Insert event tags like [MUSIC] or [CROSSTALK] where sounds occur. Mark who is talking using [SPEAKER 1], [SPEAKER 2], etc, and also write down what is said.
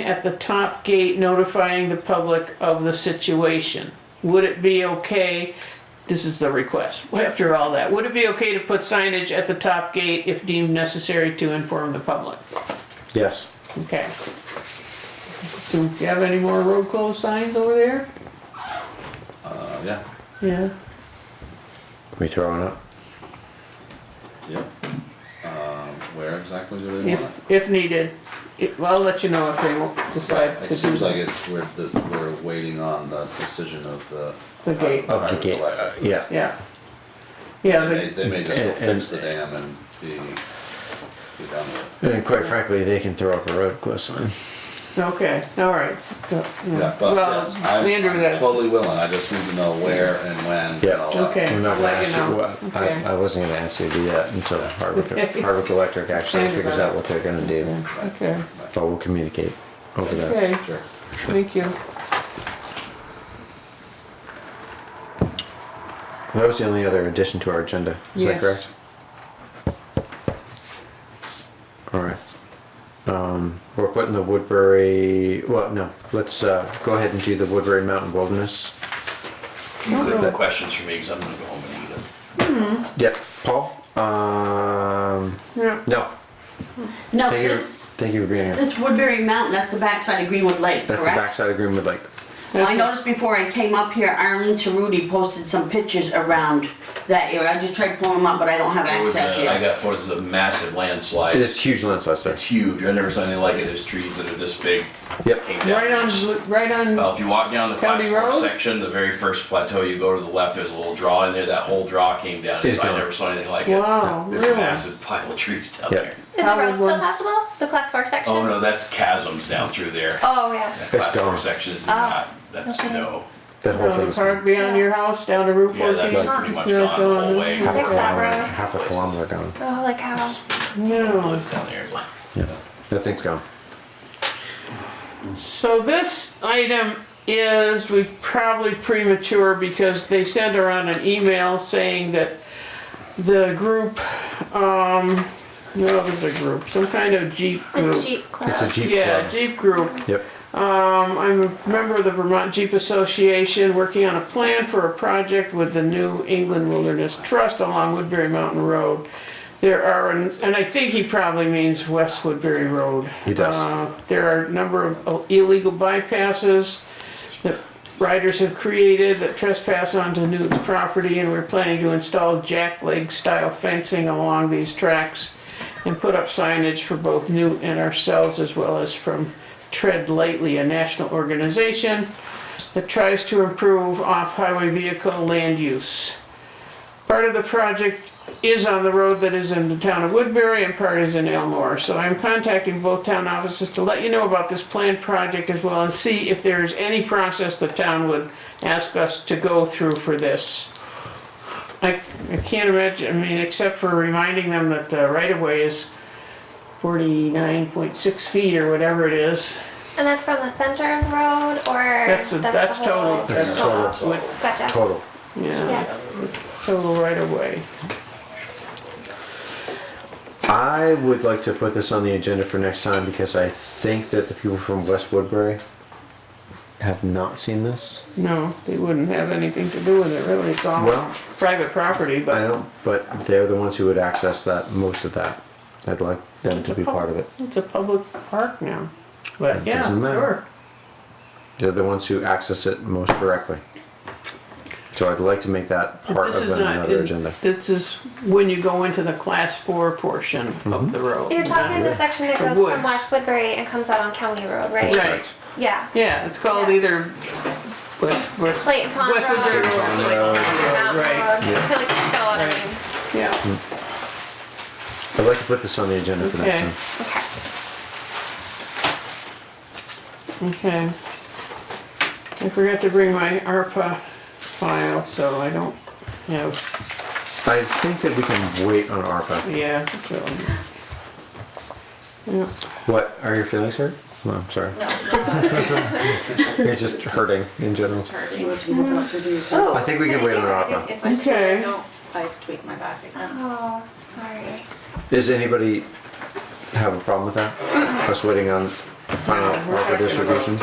[SPEAKER 1] at the top gate notifying the public of the situation. Would it be okay, this is the request, after all that, would it be okay to put signage at the top gate if deemed necessary to inform the public?
[SPEAKER 2] Yes.
[SPEAKER 1] Okay. So do you have any more road closed signs over there?
[SPEAKER 3] Uh, yeah,
[SPEAKER 1] Yeah.
[SPEAKER 2] We throwing up?
[SPEAKER 3] yep. Um, where exactly do they want it?
[SPEAKER 1] If, if needed, It- well, I'll let you know if they won't decide to do
[SPEAKER 3] It seems like it's, we're, the- we're waiting on the decision of the.
[SPEAKER 1] The
[SPEAKER 3] uh,
[SPEAKER 1] gate.
[SPEAKER 2] Of the
[SPEAKER 3] Harbor
[SPEAKER 2] gate,
[SPEAKER 3] Collector.
[SPEAKER 2] yeah.
[SPEAKER 1] Yeah. Yeah,
[SPEAKER 3] They,
[SPEAKER 1] but,
[SPEAKER 3] they may just go
[SPEAKER 2] And- and-
[SPEAKER 3] fix the dam and be, be done with
[SPEAKER 2] And quite frankly, they can throw up a road close sign.
[SPEAKER 1] okay, all right. So,
[SPEAKER 3] it. Yeah, but
[SPEAKER 1] Hmm. Well,
[SPEAKER 3] yes, I'm
[SPEAKER 1] Andrew,
[SPEAKER 3] I'm
[SPEAKER 1] that,
[SPEAKER 3] totally willing, I just need to know where and when
[SPEAKER 2] Yeah.
[SPEAKER 3] and all that.
[SPEAKER 1] Okay.
[SPEAKER 2] I'm not gonna
[SPEAKER 1] Let you
[SPEAKER 2] ask
[SPEAKER 1] know.
[SPEAKER 2] you, what-
[SPEAKER 1] Okay.
[SPEAKER 2] I, I wasn't gonna ask you to do that until Harbor,
[SPEAKER 1] [LAUGHS] Okay.
[SPEAKER 2] Harbor Electric actually
[SPEAKER 1] Sorry
[SPEAKER 2] figures
[SPEAKER 1] about
[SPEAKER 2] out what they're gonna do.
[SPEAKER 1] okay,
[SPEAKER 2] But we'll communicate over that.
[SPEAKER 1] okay,
[SPEAKER 3] Sure.
[SPEAKER 1] thank you.
[SPEAKER 2] That was the only other addition to our agenda, is
[SPEAKER 1] Yes.
[SPEAKER 2] that correct? Alright. Um, we're putting the Woodbury, well, no, let's, uh, go ahead and do the Woodbury Mountain Wilderness.
[SPEAKER 4] You could
[SPEAKER 1] no.
[SPEAKER 4] have questions for me, because I'm gonna go home and eat it.
[SPEAKER 2] Yep, Paul, um,
[SPEAKER 1] Yeah,
[SPEAKER 2] no,
[SPEAKER 5] No,
[SPEAKER 2] thank you,
[SPEAKER 5] this,
[SPEAKER 2] thank you for being here.
[SPEAKER 5] this Woodbury Mountain, that's the backside of Greenwood Lake,
[SPEAKER 2] That's the
[SPEAKER 5] correct?
[SPEAKER 2] backside of Greenwood Lake.
[SPEAKER 5] Well,
[SPEAKER 1] That's
[SPEAKER 5] I
[SPEAKER 1] it.
[SPEAKER 5] noticed before I came up here, Arlene Tarudy posted some pictures around that area. I just tried pulling them up, but I don't have
[SPEAKER 4] It was,
[SPEAKER 5] access
[SPEAKER 4] uh, I
[SPEAKER 5] yet.
[SPEAKER 4] got photos of massive landslides.
[SPEAKER 2] It's huge landslides there.
[SPEAKER 4] It's huge. I never saw anything like it. There's trees that are this big.
[SPEAKER 2] Yep.
[SPEAKER 4] Came down.
[SPEAKER 1] right
[SPEAKER 4] It's-
[SPEAKER 1] on, right on,
[SPEAKER 4] Well, if you walk down the
[SPEAKER 1] County
[SPEAKER 4] class four
[SPEAKER 1] Road?
[SPEAKER 4] section, the very first plateau, you go to the left, there's a little draw in there. That whole draw came down.
[SPEAKER 2] It's
[SPEAKER 4] I
[SPEAKER 2] gone.
[SPEAKER 4] never saw anything like it.
[SPEAKER 1] Wow,
[SPEAKER 4] There's
[SPEAKER 1] really?
[SPEAKER 4] a massive pile of trees down
[SPEAKER 2] Yeah.
[SPEAKER 4] there.
[SPEAKER 6] Is the
[SPEAKER 1] How would
[SPEAKER 6] road still
[SPEAKER 1] one-
[SPEAKER 6] passable? The class four section?
[SPEAKER 4] Oh no, that's chasms down through there.
[SPEAKER 6] Oh, yeah.
[SPEAKER 4] That class
[SPEAKER 2] gone.
[SPEAKER 4] four section is not. That's
[SPEAKER 6] okay.
[SPEAKER 4] no.
[SPEAKER 2] That whole
[SPEAKER 1] down
[SPEAKER 2] thing
[SPEAKER 1] the
[SPEAKER 2] is
[SPEAKER 1] park uh, beyond your house, down to Route
[SPEAKER 4] Yeah,
[SPEAKER 1] fourteen.
[SPEAKER 4] that's pretty much gone the whole way.
[SPEAKER 1] Yeah.
[SPEAKER 2] half a
[SPEAKER 6] Fix that
[SPEAKER 2] kilometer,
[SPEAKER 6] road.
[SPEAKER 2] half a kilometer gone.
[SPEAKER 6] Oh, like how?
[SPEAKER 1] No,
[SPEAKER 4] Live down there. It's like-
[SPEAKER 2] Yeah, that thing's gone.
[SPEAKER 1] so this item is, we probably premature because they sent around an email saying that the group, um, no, it was a group, some kind of Jeep
[SPEAKER 6] The
[SPEAKER 1] group.
[SPEAKER 6] Jeep Club.
[SPEAKER 2] It's a Jeep
[SPEAKER 1] Yeah,
[SPEAKER 2] club.
[SPEAKER 1] Jeep group
[SPEAKER 2] Yep,
[SPEAKER 1] Um, I'm a member of the Vermont Jeep Association, working on a plan for a project with the New England Wilderness Trust along Woodbury Mountain Road. There are, and I think he probably means West Woodbury Road.
[SPEAKER 2] He does.
[SPEAKER 1] Uh, There are a number of illegal bypasses that riders have created that trespass onto Newton's property, and we're planning to install jackleg-style fencing along these tracks and put up signage for both Newt and ourselves, as well as from Tread Lightly, a national organization that tries to improve off-highway vehicle land use. Part of the project is on the road that is in the town of Woodbury and part is in Elmore. So I'm contacting both town offices to let you know about this planned project as well and see if there is any process the town would ask us to go through for this. I, I can't imagine, I mean, except for reminding them that the right of way is forty-nine point six feet or whatever it is.
[SPEAKER 6] And that's from the center of the road or?
[SPEAKER 1] That's, a-
[SPEAKER 6] the
[SPEAKER 1] that's
[SPEAKER 6] whole-
[SPEAKER 1] total,
[SPEAKER 2] That's
[SPEAKER 1] that's
[SPEAKER 2] total.
[SPEAKER 1] total, with-
[SPEAKER 6] Gotcha.
[SPEAKER 2] total.
[SPEAKER 1] yeah,
[SPEAKER 6] Yeah.
[SPEAKER 1] total right of way.
[SPEAKER 2] I would like to put this on the agenda for next time because I think that the people from West Woodbury have not seen this.
[SPEAKER 1] No, they wouldn't have anything to do with it, really, it's all
[SPEAKER 2] Well-
[SPEAKER 1] private property,
[SPEAKER 2] I
[SPEAKER 1] but
[SPEAKER 2] don't, but they're the ones who would access that, most of that. I'd like them to be part of it.
[SPEAKER 1] it's a public park now. But
[SPEAKER 2] It
[SPEAKER 1] yeah,
[SPEAKER 2] doesn't matter.
[SPEAKER 1] sure.
[SPEAKER 2] They're the ones who access it most directly. So I'd like to make that part
[SPEAKER 1] This
[SPEAKER 2] of
[SPEAKER 1] is not,
[SPEAKER 2] another
[SPEAKER 1] in-
[SPEAKER 2] agenda.
[SPEAKER 1] this is when you go into the class four portion
[SPEAKER 2] Mm-hmm.
[SPEAKER 1] of the road.
[SPEAKER 6] You're talking the
[SPEAKER 1] not-
[SPEAKER 6] section that
[SPEAKER 1] The
[SPEAKER 6] goes
[SPEAKER 1] woods.
[SPEAKER 6] from West Woodbury and comes out on County Road, right?
[SPEAKER 1] Right,
[SPEAKER 6] Yeah.
[SPEAKER 1] yeah, it's called
[SPEAKER 6] Yeah.
[SPEAKER 1] either West, West,
[SPEAKER 6] Slate Pond Road.
[SPEAKER 1] West Woodbury or Slate
[SPEAKER 2] Pond Road.
[SPEAKER 6] Slate
[SPEAKER 1] Pond
[SPEAKER 6] Mountain
[SPEAKER 1] Road, right,
[SPEAKER 6] Road. I feel like it's got a lot of
[SPEAKER 1] Right.
[SPEAKER 6] names.
[SPEAKER 1] yeah,
[SPEAKER 2] I'd like to put this on the agenda for next
[SPEAKER 1] Okay.
[SPEAKER 2] time.
[SPEAKER 6] Okay.
[SPEAKER 1] okay. I forgot to bring my ARPA file, so I don't have,
[SPEAKER 2] I think that we can wait on ARPA.
[SPEAKER 1] yeah, so. Yeah.
[SPEAKER 2] What, are your feelings hurt? No, I'm sorry. [LAUGHS] You're just hurting in general.
[SPEAKER 7] Unless you look up to do it.
[SPEAKER 2] I think we can wait on ARPA.
[SPEAKER 7] If I swear I
[SPEAKER 1] Okay.
[SPEAKER 7] don't, I tweak my back again.
[SPEAKER 6] Oh, sorry.
[SPEAKER 2] Does anybody have a problem with that? Us waiting on final
[SPEAKER 1] We're
[SPEAKER 2] ARPA
[SPEAKER 1] talking about
[SPEAKER 2] distribution?